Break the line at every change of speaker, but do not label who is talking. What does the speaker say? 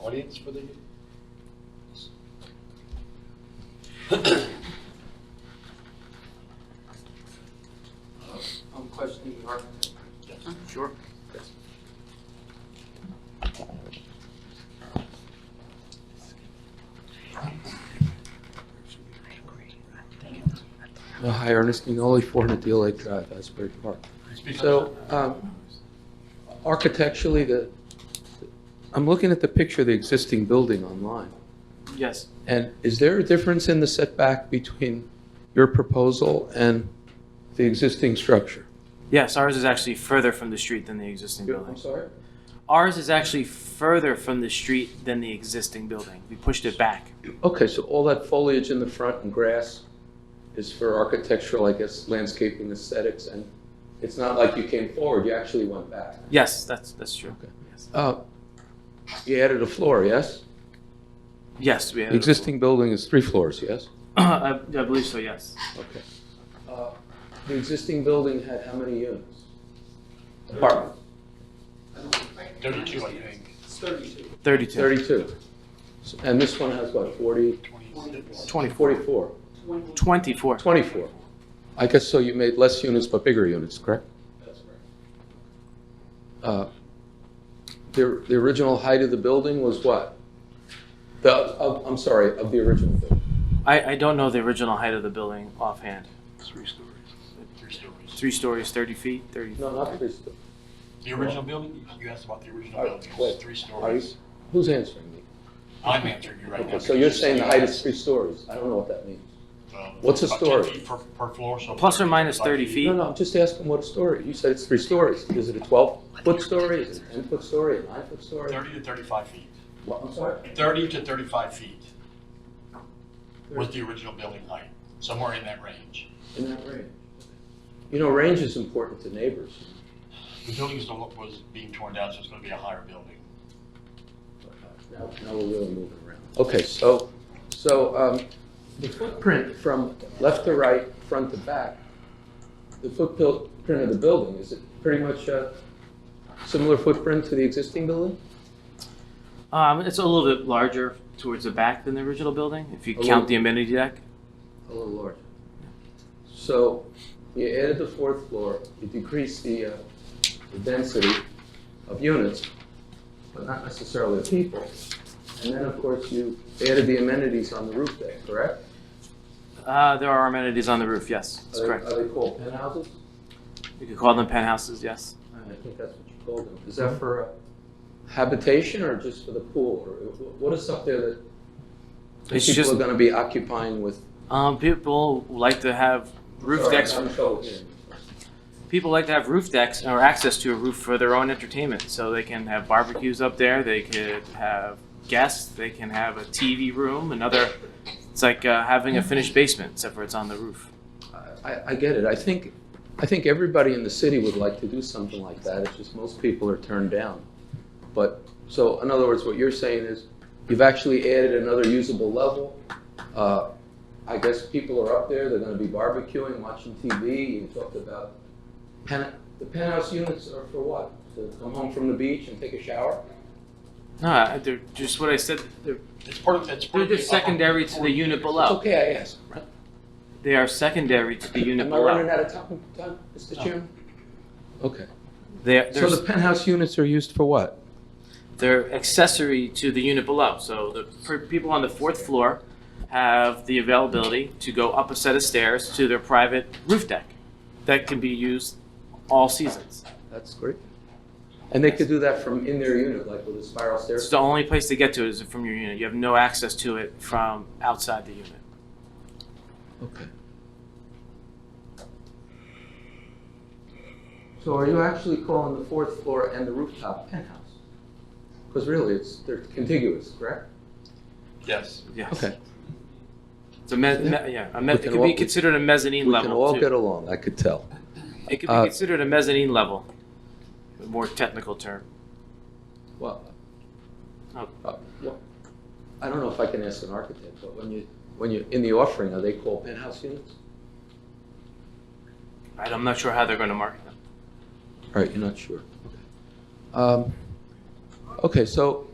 audience for the?
I'm questioning the architect.
Sure.
Uh, Hi, Ernest Ninoli, 400 Deal Lake Drive, Asbury Park. So um, architecturally, the, I'm looking at the picture of the existing building online.
Yes.
And is there a difference in the setback between your proposal and the existing structure?
Yes, ours is actually further from the street than the existing building.
sorry?
Ours is actually further from the street than the existing building. We pushed it back.
Okay, so all that foliage in the front and grass is for architectural, I guess, landscaping aesthetics, and it's not like you came forward, you actually went back.
Yes, that's, that's true.
Okay.
Yes.
Uh, You added a floor, yes?
Yes, we have.
The existing building is three floors, yes?
I, I believe so, yes.
Okay. Uh, The existing building had how many units? Apartment,
Thirty-two, I think.
Thirty-two.
32. So- And this one has what, 40?
Twenty-four.
44,
Twenty-four.
24. I guess so you made less units but bigger units, correct? Uh, The the original height of the building was what? The, of- I'm sorry, of the original building.
I, I don't know the original height of the building offhand.
Three stories. Three stories.
Three stories, thirty feet, thirty.
No, not three stories.
The original building, you asked about the original
All right,
building,
wait.
it's three
Are you-
stories.
Who's answering me?
I'm answering you right now.
Okay, so you're saying the height is three stories. I don't know what that means.
Um,
what's a
about
story?
10 feet Per, per floor, so.
Plus or minus 30 feet.
No, no, I'm just asking what a story. You said it's three stories. Is it a 12-foot story? Is it a 10-foot story, a 9-foot story?
Thirty to thirty-five feet.
Well, I'm sorry?
Thirty to thirty-five feet was the original building height, somewhere in that range.
In that range. You know, range is important to neighbors.
The building is, the lo- was being torn down, so it's gonna be a higher building.
Now, now we're really moving around. Okay, so, so um, the footprint from left to right, front to back, the footprint of the building, is it pretty much a similar footprint to the existing building?
Um, it's a little bit larger towards the back than the original building, if you
A little-
count the amenity deck.
A little larger. So you added the fourth floor, you decreased the, uh, the density of units, but not necessarily of people. And then, of course, you added the amenities on the roof deck, correct?
Uh, there are amenities on the roof, yes, that's
Are they-
correct.
Are they called penthouses?
You could call them penthouses, yes.
I think that's what you called them. Is
Mm-hmm.
that for uh, habitation or just for the pool? Or uh, wh- what is up there that that
It's
people
just-
are gonna be occupying with?
Um, people like to have roof
Sorry,
decks.
I'm in trouble hearing you.
People like to have roof decks or access to a roof for their own entertainment, so they can have barbecues up there. They could have guests. They can have a TV room. Another, it's like uh, having a finished basement, except for it's on the roof.
I, I get it. I think, I think everybody in the city would like to do something like that. It's just most people are turned down. But, so in other words, what you're saying is you've actually added another usable level. Uh, I guess people are up there, they're gonna be barbecuing, watching TV. You talked about pen, the penthouse units are for what? To come home from the beach and take a shower?
No, I- they're just what I said. They're,
It's part of, it's part
they're
of. the uh,
just
upper
secondary to the
floor.
unit
It's
below.
okay, I asked. right?
They are secondary to the unit
Am I running
below.
out of time, time, Mr. Chairman? Okay.
They're,
So
they're,
the penthouse units are used for what?
they're accessory to the unit below. So the for people on the fourth floor have the availability to go up a set of stairs to their private roof deck that can be used all seasons.
That's great. And they could do that from in their unit, like with a spiral
It's
stairs?
the only place to get to is from your unit. You have no access to it from outside the unit.
Okay. So are you actually calling the fourth floor and the rooftop penthouse? Because really, it's, they're contiguous, correct?
Yes.
Yes. It's a me- me- yeah, a me-
We
it
can
could
all-
be considered a mezzanine
We can
level
all
too.
get along, I could tell.
It could be
uh,
considered a mezzanine level, a more technical term.
Well,
Oh.
uh, well, I don't know if I can ask an architect, but when you, when you, in the offering, are they called penthouse units?
Right, I'm not sure how they're going to market them.
All right, you're not sure. Um, Okay, so